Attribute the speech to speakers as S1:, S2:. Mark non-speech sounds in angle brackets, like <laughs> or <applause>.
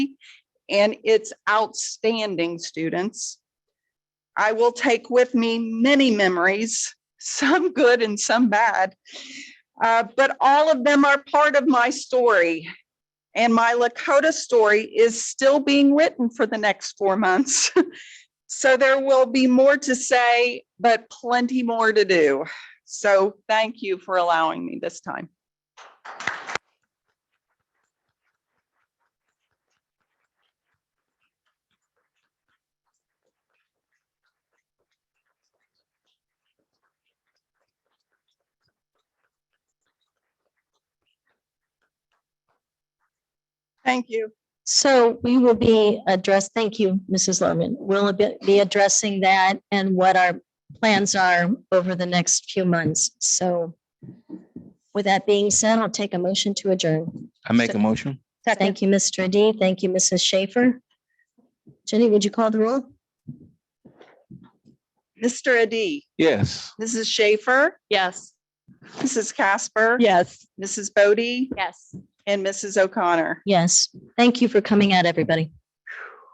S1: and it's outstanding students. I will take with me many memories, some good and some bad. Uh, but all of them are part of my story. And my Lakota story is still being written for the next four months. <laughs> So there will be more to say, but plenty more to do. So thank you for allowing me this time. Thank you.
S2: So we will be addressed, thank you, Mrs. Lerman. We'll be- be addressing that and what our plans are over the next few months. So with that being said, I'll take a motion to adjourn.
S3: I make a motion?
S2: Thank you, Mr. Adi. Thank you, Mrs. Schaefer. Jenny, would you call the roll?
S1: Mr. Adi,
S3: Yes.
S1: Mrs. Schaefer,
S4: Yes.
S1: Mrs. Casper.
S4: Yes.
S1: Mrs. Bodie
S4: Yes.
S1: and Mrs. O'Connor.
S2: Yes, thank you for coming out, everybody.